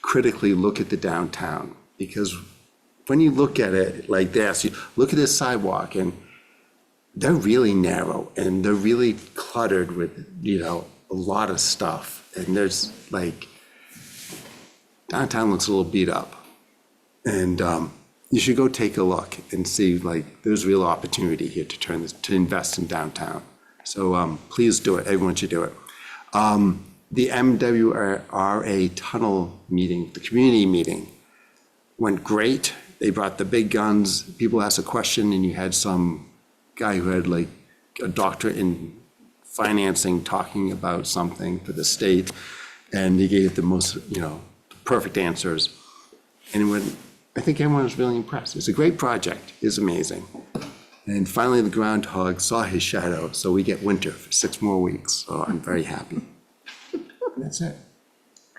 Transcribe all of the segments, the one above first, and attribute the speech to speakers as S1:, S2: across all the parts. S1: critically look at the downtown, because when you look at it like this, you look at this sidewalk, and they're really narrow, and they're really cluttered with, you know, a lot of stuff, and there's like, downtown looks a little beat up. And um, you should go take a look and see, like, there's real opportunity here to turn this, to invest in downtown. So um, please do it. Everyone should do it. Um, The MWRA tunnel meeting, the community meeting, went great. They brought the big guns. People asked a question, and you had some guy who had like a doctorate in financing talking about something for the state, and he gave the most, you know, perfect answers. And when, I think everyone was really impressed. It's a great project. It's amazing. And finally, the groundhog saw his shadow, so we get winter for six more weeks. So I'm very happy. That's it.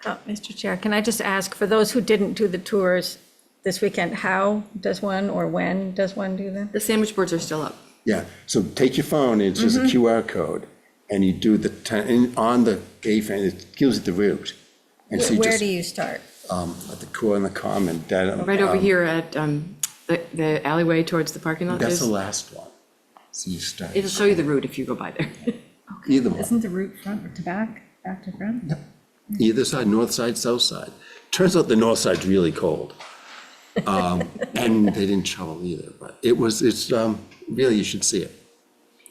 S2: Uh, Mr. Chair, can I just ask, for those who didn't do the tours this weekend, how does one or when does one do them?
S3: The sandwich boards are still up.
S1: Yeah, so take your phone, it's just a QR code, and you do the, ten- and on the gay fan, it gives you the route. And so
S2: Wh-
S1: you
S2: Where do
S1: just,
S2: you start?
S1: um, at the core and the common, that.
S3: Right over
S1: um,
S3: here at um, the the alleyway towards the parking lot.
S1: That's the
S3: there's-
S1: last one. So you start,
S3: It'll show you the route if you go by there.
S1: either one.
S4: Isn't the route front to back, back to front?
S1: either side, north side, south side. Turns out the north side's really cold. Um, And they didn't shovel either, but it was, it's, um, really, you should see it.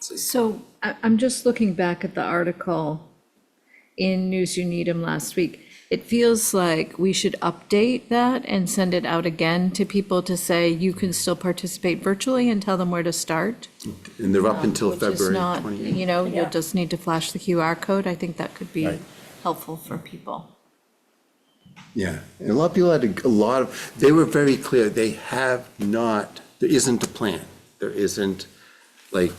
S4: So I, I'm just looking back at the article in News You Need 'Em last week. It feels like we should update that and send it out again to people to say you can still participate virtually and tell them where to start.
S1: And they're up until
S4: Um, Which is
S1: February
S4: not,
S1: 28th.
S4: you know, you'll
S2: Yeah.
S4: just need to flash the QR code. I think that could be
S1: Right.
S4: helpful for people.
S1: Yeah, and a lot of people had a- a lot of, they were very clear, they have not, there isn't a plan. There isn't, like,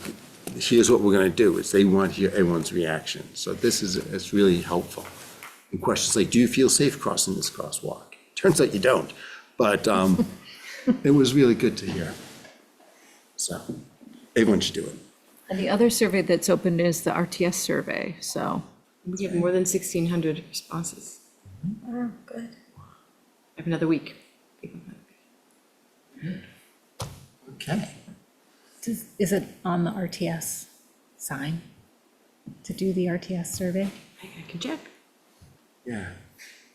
S1: here's what we're gonna do, it's they want to hear everyone's reaction. So this is, it's really helpful. And questions like, do you feel safe crossing this crosswalk? Turns out you don't, but um, it was really good to hear. So, everyone should do it.
S4: And the other survey that's open is the RTS survey, so.
S3: We have more than 1,600 responses.
S2: Oh, good.
S3: I have another week.
S1: Okay.
S5: Does- Is it on the RTS sign to do the RTS survey?
S3: I I can check.
S1: Yeah,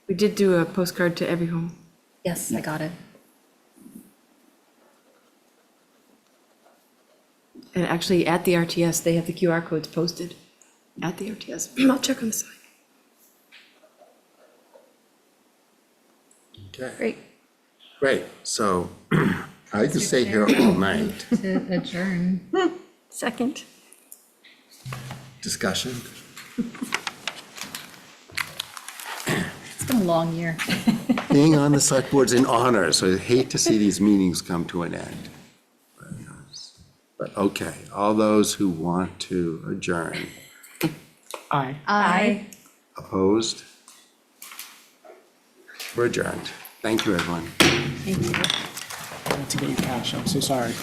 S3: We did do a postcard to every home.
S5: Yes, I got it.
S3: And actually, at the RTS, they have the QR codes posted at the RTS. I'll check on the site.
S1: okay,
S2: Great.
S1: great. So, I could stay here all night.
S5: To adjourn.
S2: Second?
S1: Discussion?
S5: It's been a long year.
S1: Being on the select board's an honor, so I hate to see these meetings come to an end. But, okay, all those who want to adjourn,
S3: Aye.
S2: Aye.
S1: opposed? We're adjourned. Thank you, everyone.
S6: I had to get you cash, I'm so sorry.